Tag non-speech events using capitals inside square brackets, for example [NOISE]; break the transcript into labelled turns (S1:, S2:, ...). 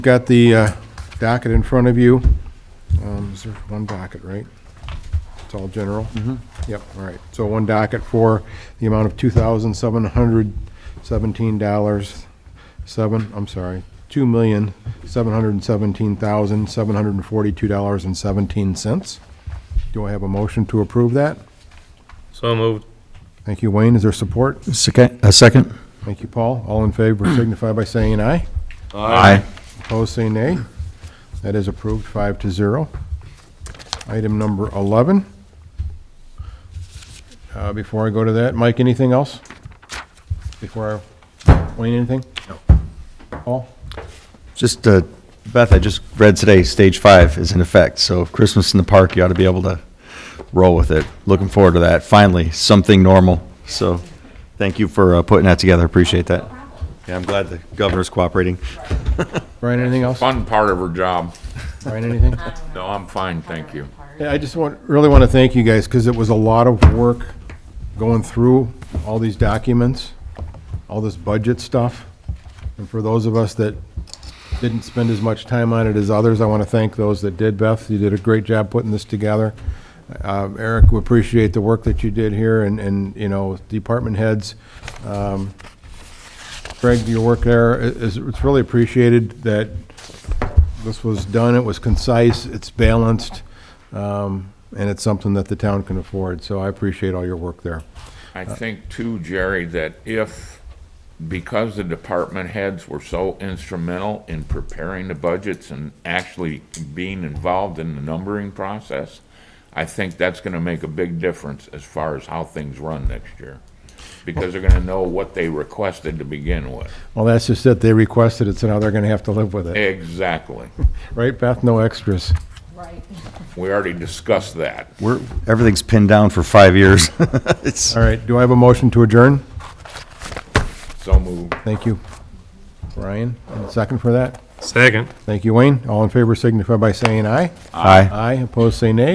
S1: Got the uh, docket in front of you. Um, Is there one docket, right? It's all general? Mm-hmm. Yep, all right. So one docket for the amount of $2,717, seven, I'm sorry, $2,717,742.17. Do I have a motion to approve that?
S2: So moved.
S1: Thank you, Wayne. Is there support?
S3: Second, a second?
S1: Thank you, Paul. All in favor signify by saying aye.
S3: Aye.
S1: Opposed, Oh, say nay. That is approved, five to zero. Item number 11. Uh, Before I go to that, Mike, anything else? Before I, Wayne, anything? No. Paul?
S3: Just, uh, Beth, I just read today, stage five is in effect, so if Christmas in the park, you ought to be able to roll with it. Looking forward to that, finally, something normal. So, thank you for uh, putting that together, appreciate that. Yeah, I'm glad the governor's cooperating.
S1: Brian, anything else?
S4: fun part of her job.
S1: Brian, anything?
S4: No, I'm fine, thank you.
S1: Yeah, I just want, really want to thank you guys, because it was a lot of work going through all these documents, all this budget stuff. And for those of us that didn't spend as much time on it as others, I want to thank those that did. Beth, you did a great job putting this together. Um, Eric, we appreciate the work that you did here, and, and, you know, department heads, um, Greg, your work there is, it's really appreciated that this was done, it was concise, it's balanced, um, and it's something that the town can afford, so I appreciate all your work there.
S4: I think too, Jerry, that if, because the department heads were so instrumental in preparing the budgets and actually being involved in the numbering process, I think that's gonna make a big difference as far as how things run next year. Because they're gonna know what they requested to begin with.
S1: Well, that's just it, they requested it, so now they're gonna have to live with it.
S4: Exactly.
S1: Right, Beth? No extras.
S5: Right.
S4: We already discussed that.
S3: We're, everything's pinned down for five years. [LAUGHS] It's,
S1: All right, do I have a motion to adjourn?
S4: So moved.
S1: Thank you. Ryan, and a second for that?
S2: Second.
S1: Thank you, Wayne. All in favor signify by saying aye.
S3: aye.
S1: Aye, opposed, say nay.